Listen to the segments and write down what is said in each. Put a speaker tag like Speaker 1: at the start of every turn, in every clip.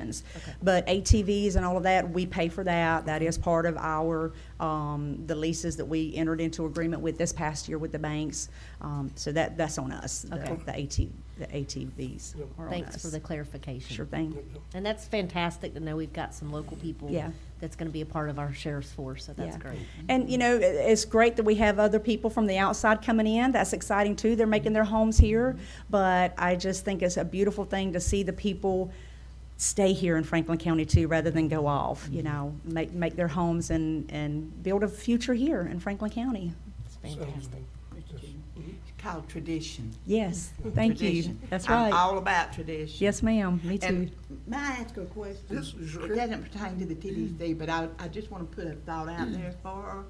Speaker 1: funds. But ATVs and all of that, we pay for that. That is part of our, um, the leases that we entered into agreement with this past year with the banks. Um, so that, that's on us. The-
Speaker 2: Okay.
Speaker 1: The AT, the ATVs are on
Speaker 2: Thanks for
Speaker 1: us.
Speaker 2: the clarification.
Speaker 1: Sure thing.
Speaker 2: And that's fantastic to know we've got some local people
Speaker 1: Yeah.
Speaker 2: that's going to be a part of our sheriff's force, so that's
Speaker 1: Yeah.
Speaker 2: great.
Speaker 1: And, you know, i- it's great that we have other people from the outside coming in. That's exciting too. They're making their homes here. But I just think it's a beautiful thing to see the people stay here in Franklin County too, rather than go off, you know, make, make their homes and, and build a future here in Franklin County.
Speaker 2: It's fantastic.
Speaker 3: called tradition.
Speaker 1: Yes, thank you.
Speaker 3: Tradition.
Speaker 1: That's
Speaker 3: I'm
Speaker 1: right.
Speaker 3: all about tradition.
Speaker 1: Yes, ma'am, me too.
Speaker 3: And may I ask a question?
Speaker 4: Yes, sure.
Speaker 3: It doesn't pertain to the
Speaker 1: Mm.
Speaker 3: TDC, but I, I just want to put a thought out there for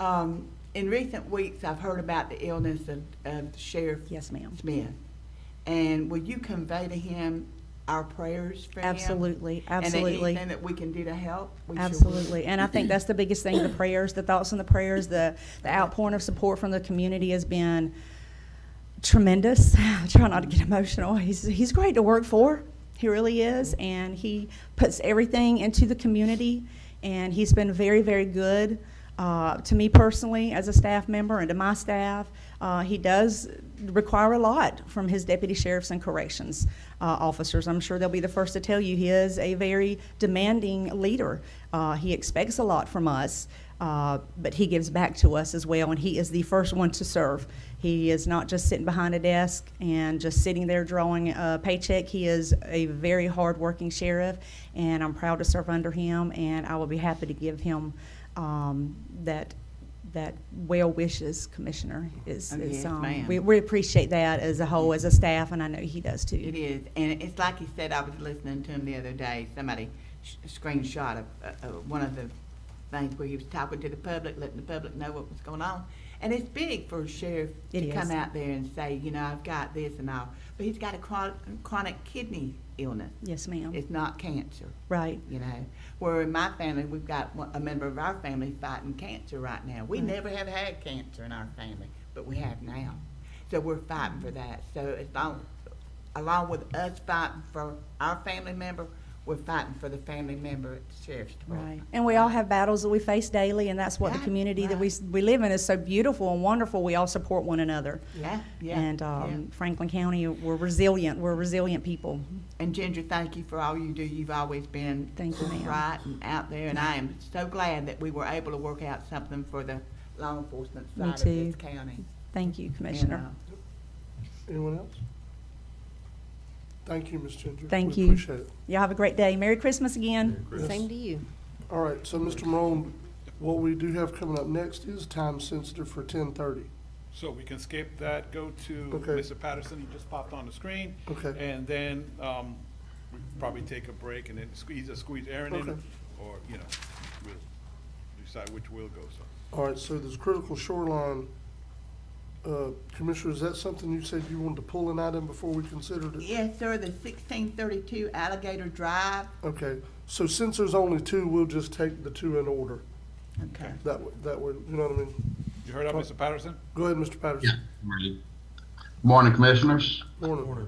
Speaker 3: her. Um, in recent weeks, I've heard about the illness of, of Sheriff
Speaker 1: Yes, ma'am.
Speaker 3: Smith. And will you convey to him our prayers for him?
Speaker 1: Absolutely, absolutely.
Speaker 3: And anything that we can do to help? we sure will.
Speaker 1: Absolutely. And I think that's the biggest thing, the prayers, the thoughts and the prayers, the, the outpouring of support from the community has been tremendous. I try not to get emotional. He's, he's great to work for. He really is. And he puts everything into the community. And he's been very, very good uh, to me personally as a staff member and to my staff. Uh, he does require a lot from his deputy sheriffs and corrections uh, officers. I'm sure they'll be the first to tell you he is a very demanding leader. Uh, he expects a lot from us, uh, but he gives back to us as well, and he is the first one to serve. He is not just sitting behind a desk and just sitting there drawing a paycheck. He is a very hardworking sheriff, and I'm proud to serve under him, and I will be happy to give him um, that that well wishes, Commissioner. Is,
Speaker 3: Oh,
Speaker 1: is,
Speaker 3: yes,
Speaker 1: um,
Speaker 3: ma'am.
Speaker 1: we, we appreciate that as a whole, as a staff, and I know he does too.
Speaker 3: It is, and it's like he said, I was listening to him the other day, somebody sh- screenshot of, uh, uh, one of the things where he was talking to the public, letting the public know what was going on. And it's big for a sheriff
Speaker 1: It
Speaker 3: to come
Speaker 1: is.
Speaker 3: out there and say, you know, I've got this and all, but he's got a chronic, chronic kidney illness.
Speaker 1: Yes, ma'am.
Speaker 3: It's not cancer,
Speaker 1: Right.
Speaker 3: you know, where in my family, we've got one- a member of our family fighting cancer right now. We
Speaker 1: Right.
Speaker 3: never have had cancer in our family, but we have now. So we're fighting for that. So it's long, along with us fighting for our family member, we're fighting for the family member at the sheriff's
Speaker 1: Right.
Speaker 3: department.
Speaker 1: And we all have battles that we face daily, and that's what the
Speaker 3: Right,
Speaker 1: community that we, s- we live in is so beautiful and wonderful. We all support one another.
Speaker 3: Yeah, yeah.
Speaker 1: And
Speaker 3: yeah.
Speaker 1: um, Franklin County, we're resilient. We're resilient people.
Speaker 3: And Ginger, thank you for all you do. You've always been
Speaker 1: Thank you, ma'am.
Speaker 3: right and out there, and I am so glad that we were able to work out something for the law enforcement
Speaker 1: Me
Speaker 3: side of
Speaker 1: too.
Speaker 3: this county.
Speaker 1: Thank you,
Speaker 3: And,
Speaker 1: Commissioner.
Speaker 3: uh,
Speaker 4: Anyone else? Thank you, Ms. Ginger.
Speaker 1: Thank
Speaker 4: We
Speaker 1: you.
Speaker 4: appreciate it.
Speaker 1: Y'all have a great day. Merry Christmas again.
Speaker 4: Yes.
Speaker 2: Same to you.
Speaker 4: All right, so Mr. Morone, what we do have coming up next is time sensitive for ten thirty.
Speaker 5: So we can skip that, go to
Speaker 4: Okay.
Speaker 5: Mr. Patterson, he just popped on the screen.
Speaker 4: Okay.
Speaker 5: And then, um, we probably take a break and then squeeze, either squeeze Aaron in,
Speaker 4: Okay.
Speaker 5: or, you know, we'll decide which will go, so.
Speaker 4: All right, so this critical shoreline, uh, Commissioner, is that something you said you wanted to pull an item before we considered it?
Speaker 3: Yes, sir, the sixteen thirty-two Alligator Drive.
Speaker 4: Okay, so since there's only two, we'll just take the two in order.
Speaker 3: Okay.
Speaker 4: That, w- that way, you know what I mean?
Speaker 5: You heard of Mr. Patterson?
Speaker 4: Go ahead, Mr.
Speaker 6: Yeah,
Speaker 4: Patterson.
Speaker 6: morning. Morning, Commissioners.
Speaker 4: Morning.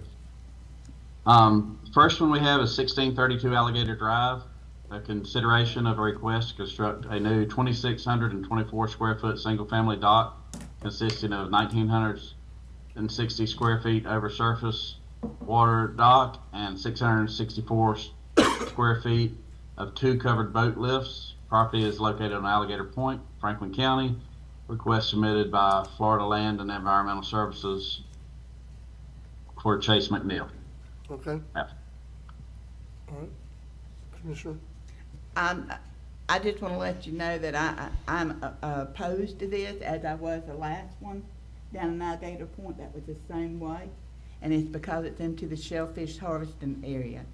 Speaker 6: Um, First one we have is 1632 Alligator Drive, a consideration of a request to construct a new 2,624 square foot single-family dock consisting of 1,960 square feet over surface water dock and 664 s- square feet of two covered boat lifts. Property is located on Alligator Point, Franklin County. Request submitted by Florida Land and Environmental Services for Chase McNeil.
Speaker 4: Okay,
Speaker 6: Yep.
Speaker 4: all right. Commissioner?
Speaker 3: I'm, I just want to let you know that I, I- I'm uh, opposed to this, as I was the last one down in Alligator Point, that was the same way. And it's because it's into the shellfish harvesting area,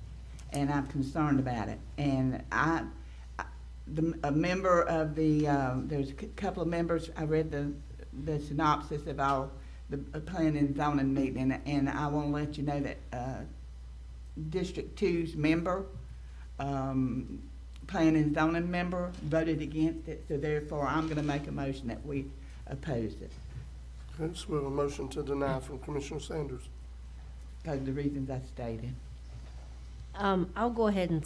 Speaker 3: and I'm concerned about it. And I, I- the, a member of the, um, there's a cou- couple of members, I read the, the synopsis of our, the uh, planning and zoning meeting, and I want to let you know that, uh, District Two's member, um, planning and zoning member voted against it, so therefore I'm gonna make a motion that we oppose it,
Speaker 4: Okay, so we have a motion to deny from Commissioner Sanders.
Speaker 3: because of the reasons I stated.
Speaker 2: Um, I'll go ahead and